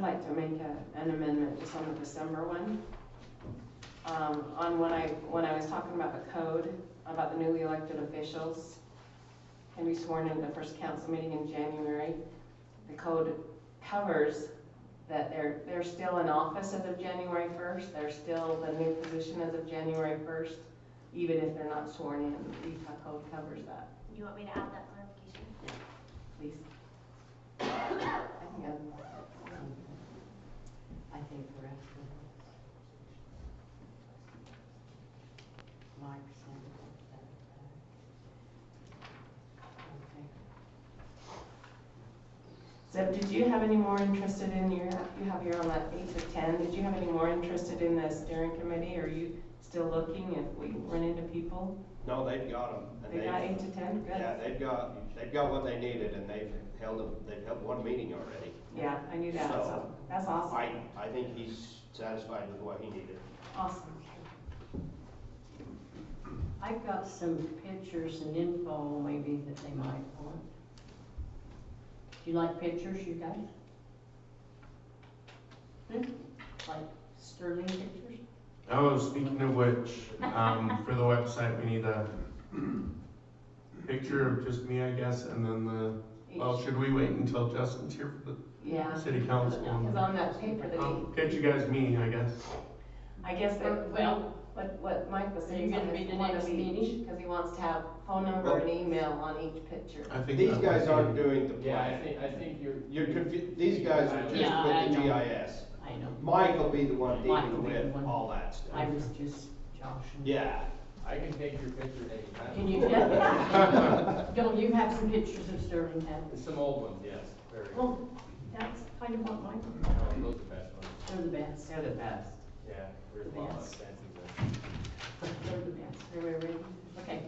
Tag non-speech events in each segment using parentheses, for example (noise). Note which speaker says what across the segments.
Speaker 1: like to make a- an amendment just on the December one. Um, On when I, when I was talking about the code, about the newly elected officials can be sworn in the first council meeting in January. The code covers that they're, they're still in office as of January first, they're still the new position as of January first, even if they're not sworn in, the Utah code covers that,
Speaker 2: You want me to add that clarification?
Speaker 1: please. I think I'm-
Speaker 3: I think the rest of it. My percent of it, that, that. Okay.
Speaker 1: Zeb, did you have any more interested in your, you have your on that eight to ten, did you have any more interested in the steering committee? Are you still looking if we run into people?
Speaker 4: No, they've got them.
Speaker 1: They got eight to ten,
Speaker 4: Yeah,
Speaker 1: good.
Speaker 4: they've got, they've got what they needed and they've held, a- they've held one meeting already.
Speaker 1: Yeah, I knew that, so, that's
Speaker 4: I,
Speaker 1: awesome,
Speaker 4: I think he's satisfied with what he needed.
Speaker 1: awesome.
Speaker 3: I've got some pictures and info maybe that they might want. Do you like pictures, you guys? Hmm? Like Sterling pictures?
Speaker 5: Oh, speaking of which, um, for the website, we need a picture of just me, I guess, and then the,
Speaker 1: Each-
Speaker 5: well, should we wait until Justin's here for
Speaker 1: Yeah,
Speaker 5: the city council?
Speaker 1: because on that paper that he,
Speaker 3: Um,
Speaker 5: I'll get you guys me, I guess.
Speaker 1: I guess that, Uh, well,
Speaker 3: Well,
Speaker 1: what, what Mike was
Speaker 3: Are
Speaker 1: saying
Speaker 3: you gonna
Speaker 1: is
Speaker 3: be the
Speaker 1: one
Speaker 3: next
Speaker 1: of each,
Speaker 3: meeting?
Speaker 1: because he wants to have phone number and email on each picture.
Speaker 5: I think.
Speaker 4: These
Speaker 5: that
Speaker 4: guys
Speaker 5: might be-
Speaker 4: aren't doing the
Speaker 6: Yeah, I
Speaker 4: plan.
Speaker 6: think, I think you're.
Speaker 4: You're confu, these guys are
Speaker 3: Yeah,
Speaker 4: just
Speaker 3: I
Speaker 4: with the
Speaker 3: know.
Speaker 4: GIS.
Speaker 3: I know.
Speaker 4: Mike will be the one
Speaker 3: Mike will
Speaker 4: dealing
Speaker 3: be the
Speaker 4: with
Speaker 3: one.
Speaker 4: all that
Speaker 3: I
Speaker 4: stuff.
Speaker 3: was just joshing.
Speaker 4: Yeah.
Speaker 6: I can take your picture anytime.
Speaker 3: Can you, don't you have some pictures of Sterling Town?
Speaker 6: Some old ones, yes, very. No,
Speaker 3: Oh, that's kind of what mine,
Speaker 6: Those are best ones.
Speaker 3: they're the best,
Speaker 1: They're the best.
Speaker 6: Yeah, there's a lot of
Speaker 3: Yes.
Speaker 6: fancy ones.
Speaker 3: they're the best.
Speaker 1: Everybody ready?
Speaker 3: Okay.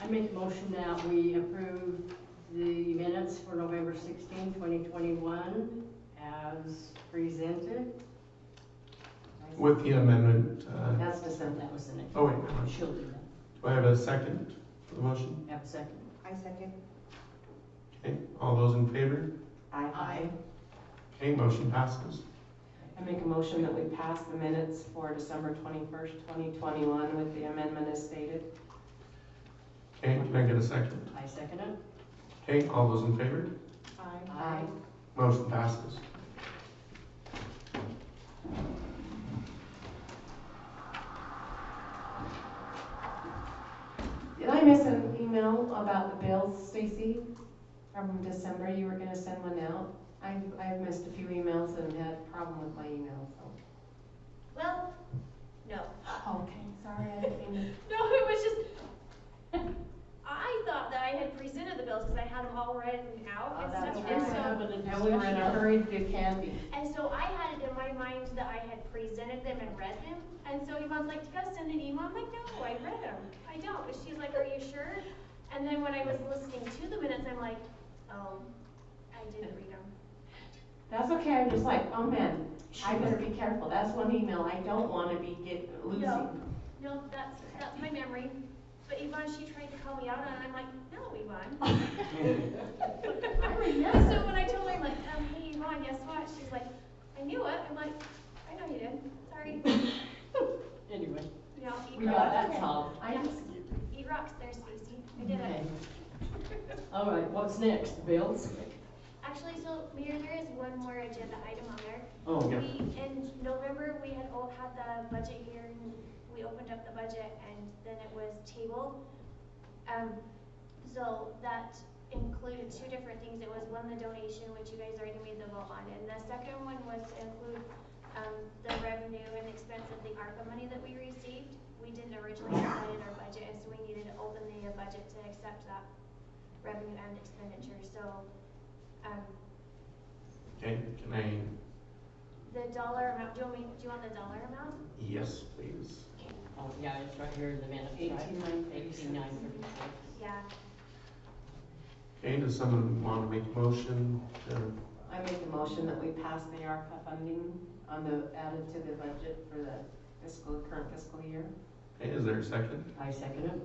Speaker 3: I make a motion that we approve the minutes for November 16, 2021 as presented.
Speaker 5: With the amendment, uh,
Speaker 3: That's December, that was the next.
Speaker 5: oh wait, no,
Speaker 3: She'll do
Speaker 5: do I have a second for the motion?
Speaker 3: that. Have a second.
Speaker 2: I second.
Speaker 5: Okay, all those in favor?
Speaker 3: Aye.
Speaker 5: Okay, motion passes.
Speaker 1: I make a motion that we pass the minutes for December twenty-first, twenty twenty-one with the amendment as stated.
Speaker 5: Okay, can I get a second?
Speaker 3: I second it.
Speaker 5: Okay, all those in favor?
Speaker 2: Aye.
Speaker 1: Aye.
Speaker 5: Motion passes.
Speaker 1: Did I miss an email about the bills, Stacy? From December, you were gonna send one out? I've, I've missed a few emails and had a problem with my email, so.
Speaker 2: Well, (laughs) no.
Speaker 1: Okay, sorry, I didn't mean to
Speaker 2: No, it was just, (laughs) I thought that I had presented the bills because I had them all written out
Speaker 1: Oh,
Speaker 2: and
Speaker 1: that's
Speaker 2: stuff.
Speaker 1: right.
Speaker 2: And
Speaker 1: We're
Speaker 2: so,
Speaker 1: And we were in a hurry to do candy.
Speaker 2: and so I had it in my mind that I had presented them and read them. And so Yvonne's like, did I send an email? I'm like, no, I read them. I don't. And she's like, are you sure? And then when I was listening to the minutes, I'm like, oh, I didn't read them.
Speaker 1: That's okay, I'm just like, oh man, I better be careful, that's one email I don't wanna be get, losing. (laughs)
Speaker 2: No, that's, that's my memory. But Yvonne, she tried to call me out on it, and I'm like, no, Yvonne.
Speaker 1: I remember.
Speaker 2: So when I told her, I'm like, um, hey, Yvonne, guess what? She's like, I knew it. I'm like, I know you did, sorry.
Speaker 3: Anyway,
Speaker 2: Yeah,
Speaker 3: we
Speaker 2: eat
Speaker 3: got
Speaker 2: rocks.
Speaker 3: that solved. I
Speaker 2: Yeah.
Speaker 3: just-
Speaker 2: Eat rocks there, Stacy. I did
Speaker 3: Okay.
Speaker 2: it.
Speaker 3: All right, what's next, bills?
Speaker 2: Actually, so Mayor, there is one more agenda item on there.
Speaker 3: Oh,
Speaker 5: yeah.
Speaker 2: We, in November, we had all had the budget here, and we opened up the budget, and then it was tabled. Um, so that included two different things, it was one, the donation, which you guys already made the vote on, and the second one was to include, um, the revenue and expense of the ARPA money that we received. We didn't originally have that in our budget, and so we needed to open the budget to accept that revenue and expenditure, so, um,
Speaker 5: Okay, can I,
Speaker 2: The dollar amount, do you want me, do you want the dollar amount?
Speaker 5: yes, please.
Speaker 3: Oh, yeah, it's right here in the minutes, right?
Speaker 1: Eighteen nine
Speaker 3: Eighteen nine
Speaker 1: thirty-six.
Speaker 3: thirty-six.
Speaker 2: Yeah,
Speaker 5: Okay, does someone want to make a motion to,
Speaker 1: I make the motion that we pass the ARPA funding on the, added to the budget for the fiscal, current fiscal year.
Speaker 5: okay, is there a second?
Speaker 3: I second it.